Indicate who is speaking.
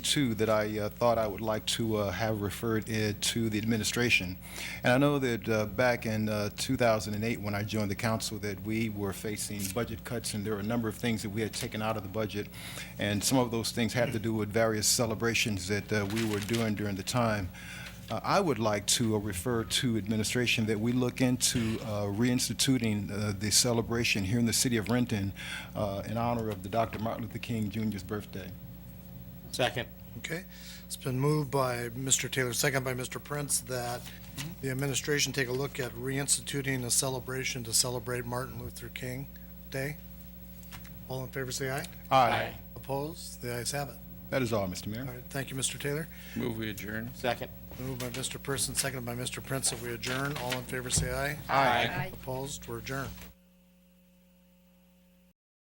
Speaker 1: Two that I uh, thought I would like to uh, have referred it to the administration. And I know that uh, back in uh, 2008, when I joined the council, that we were facing budget cuts, and there were a number of things that we had taken out of the budget. And some of those things had to do with various celebrations that uh, we were doing during the time. Uh, I would like to uh, refer to administration that we look into uh, reinstituting uh, the celebration here in the city of Renton uh, in honor of the Dr. Martin Luther King Jr.'s birthday.
Speaker 2: Second.
Speaker 3: Okay, it's been moved by Mr. Taylor, second by Mr. Prince, that the administration take a look at reinstituting a celebration to celebrate Martin Luther King Day. All in favor, say aye.
Speaker 1: Aye.
Speaker 3: Opposed? The ayes have it.
Speaker 1: That is all, Mr. Mayor.
Speaker 3: All right, thank you, Mr. Taylor.
Speaker 4: Move we adjourn.
Speaker 2: Second.
Speaker 3: Moved by Mr. Person, seconded by Mr. Prince, that we adjourn. All in favor, say aye.
Speaker 2: Aye.
Speaker 3: Opposed? We're adjourned.